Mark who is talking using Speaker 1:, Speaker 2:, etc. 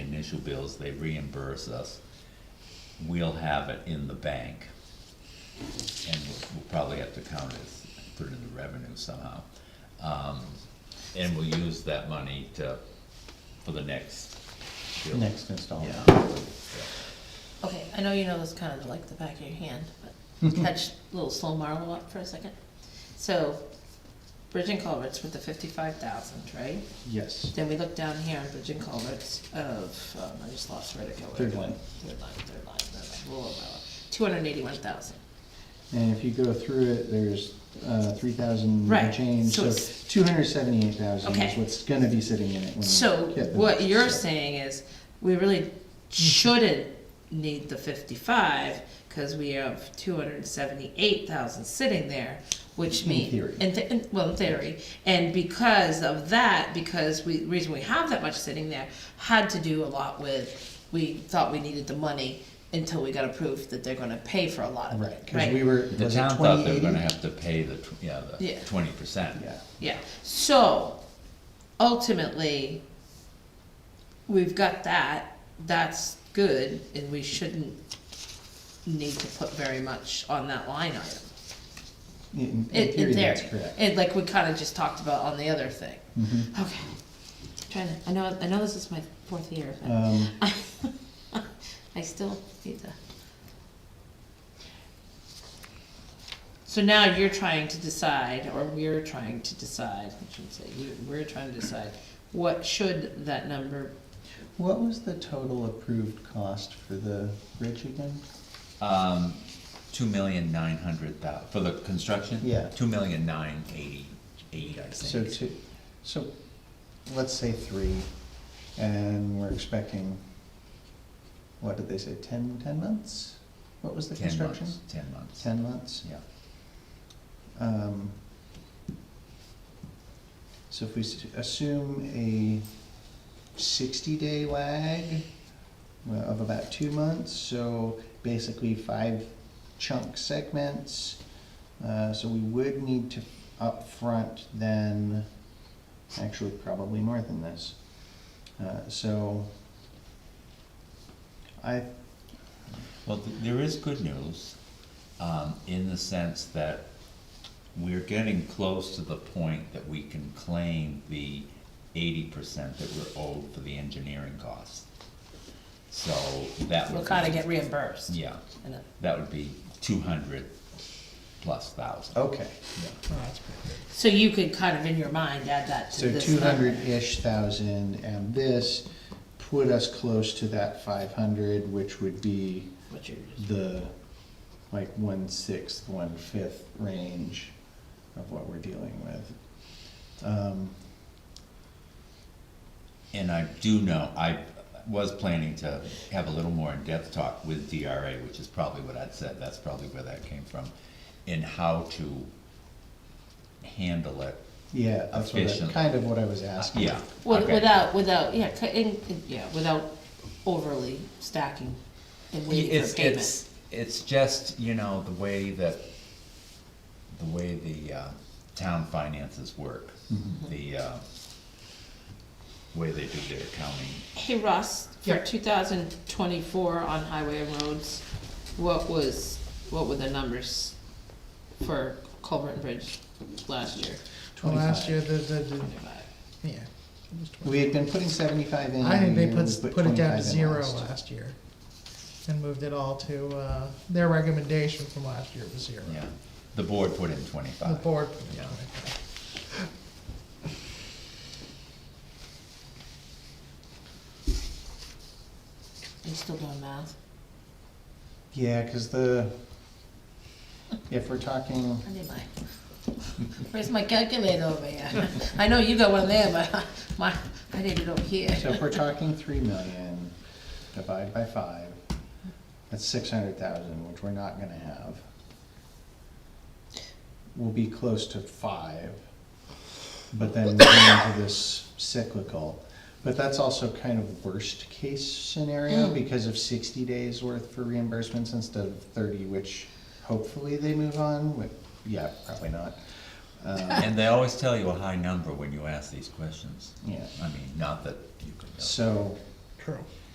Speaker 1: issue bills, they reimburse us. We'll have it in the bank. And we'll- we'll probably have to count it, as- put it in the revenue somehow. Um, and we'll use that money to, for the next bill.
Speaker 2: next installment.
Speaker 1: Yeah.
Speaker 3: Okay, I know you know this kind of like the back of your hand, but catch little slow Marlowe up for a second. So, bridge and culverts with the fifty-five thousand, right?
Speaker 2: Yes,
Speaker 3: Then we look down here on bridge and culverts of, um, I just lost where to go.
Speaker 2: Third line.
Speaker 3: Third line, third line, third line, two hundred and eighty-one thousand.
Speaker 2: and if you go through it, there's, uh, three thousand
Speaker 3: Right,
Speaker 2: change,
Speaker 3: so
Speaker 2: so
Speaker 3: it's-
Speaker 2: two hundred seventy-eight thousand is
Speaker 3: Okay.
Speaker 2: what's gonna be sitting in it. when we
Speaker 3: So
Speaker 2: get the-
Speaker 3: what you're saying is, we really shouldn't need the fifty-five, cause we have two hundred and seventy-eight thousand sitting there, which
Speaker 2: In
Speaker 3: means.
Speaker 2: theory.
Speaker 3: In, th- in- well, in theory, and because of that, because we, reason we have that much sitting there, had to do a lot with, we thought we needed the money until we got approved that they're gonna pay for a lot of
Speaker 2: Right,
Speaker 3: it,
Speaker 2: cause we
Speaker 3: right?
Speaker 2: were,
Speaker 1: The
Speaker 2: was it
Speaker 1: town thought they were
Speaker 2: 2080?
Speaker 1: gonna have to pay the, tw- yeah, the
Speaker 3: Yeah.
Speaker 1: twenty percent.
Speaker 2: Yeah,
Speaker 3: Yeah, so ultimately, we've got that, that's good, and we shouldn't need to put very much on that line item.
Speaker 2: in,
Speaker 3: In,
Speaker 2: in theory,
Speaker 3: in there,
Speaker 2: that's correct.
Speaker 3: and like we kinda just talked about on the other thing. Okay, trying to, I know, I know this is my fourth year, but
Speaker 2: Um,
Speaker 3: I still need to. So now you're trying to decide, or we're trying to decide, I shouldn't say you, we're trying to decide, what should that number,
Speaker 2: what was the total approved cost for the bridge again?
Speaker 1: Um, two million nine hundred thou, for the construction?
Speaker 2: Yeah.
Speaker 1: Two million nine eighty, eight, I
Speaker 2: So
Speaker 1: think.
Speaker 2: two, so, let's say three, and we're expecting, what did they say, ten, ten months? What was the
Speaker 1: Ten
Speaker 2: construction?
Speaker 1: months, ten months.
Speaker 2: Ten months?
Speaker 1: Yeah.
Speaker 2: Um, So if we s- assume a sixty-day lag uh, of about two months, so basically five chunk segments. Uh, So we would need to upfront then, actually probably more than this. Uh, So I,
Speaker 1: Well, th- there is good news, um, in the sense that we're getting close to the point that we can claim the eighty percent that we're owed for the engineering costs. So that would
Speaker 3: we'll kinda
Speaker 1: be-
Speaker 3: get reimbursed. oh,
Speaker 1: Yeah,
Speaker 3: And then-
Speaker 1: that would be two hundred plus thousand.
Speaker 2: okay,
Speaker 1: Yeah.
Speaker 3: So you could kind of in your mind add that to
Speaker 2: so
Speaker 3: this
Speaker 2: two
Speaker 3: number.
Speaker 2: hundred-ish thousand and this put us close to that five hundred, which would be
Speaker 3: What you're just-
Speaker 2: the like one-sixth, one-fifth range of what we're dealing with. Um,
Speaker 1: And I do know, I was planning to have a little more in-depth talk with DRA, which is probably what I'd said, that's probably where that came from, in how to handle it.
Speaker 2: Yeah, that's what, I-
Speaker 1: Efficient.
Speaker 2: kind of what I was asking.
Speaker 1: Yeah.
Speaker 3: With-
Speaker 1: okay.
Speaker 3: Without, without, yeah, cu- in, in- yeah, without overly stacking and waiting
Speaker 1: It's,
Speaker 3: for payment.
Speaker 1: it's, it's just, you know, the way that, the way the, uh, town finances work.
Speaker 3: Mm-hmm.
Speaker 1: The, uh, way they do their accounting.
Speaker 3: Hey Russ, for
Speaker 2: Yeah.
Speaker 3: two thousand twenty-four on highway and roads, what was, what were the numbers for Culvert and Bridge last year?
Speaker 4: Well, last
Speaker 2: 25.
Speaker 4: year, the, the, the,
Speaker 3: Twenty-five.
Speaker 4: yeah. it was
Speaker 2: We had been putting seventy-five in.
Speaker 4: I think they
Speaker 2: every year, we
Speaker 4: put, put it down
Speaker 2: 25
Speaker 4: to
Speaker 2: in
Speaker 4: zero
Speaker 2: last.
Speaker 4: last year. And moved it all to, uh, their recommendation from last year was zero.
Speaker 1: Yeah, the board put in
Speaker 4: The
Speaker 1: twenty-five.
Speaker 4: board. put it
Speaker 1: Yeah.
Speaker 4: down to zero.
Speaker 3: You still doing math?
Speaker 2: Yeah, cause the, if we're talking,
Speaker 3: I need my, where's my calculator over here? I know you got one there, but my, I need it over here.
Speaker 2: so if we're talking three million, divided by five, that's six hundred thousand, which we're not gonna have. We'll be close to five, but then we're into this cyclical. But that's also kind of worst-case scenario because of sixty days worth for reimbursements instead of thirty, which hopefully they move on, with, yeah, probably not. Um,
Speaker 1: And they always tell you a high number when you ask these questions.
Speaker 2: Yeah.
Speaker 1: I mean, not that you could know.
Speaker 2: So,
Speaker 4: True.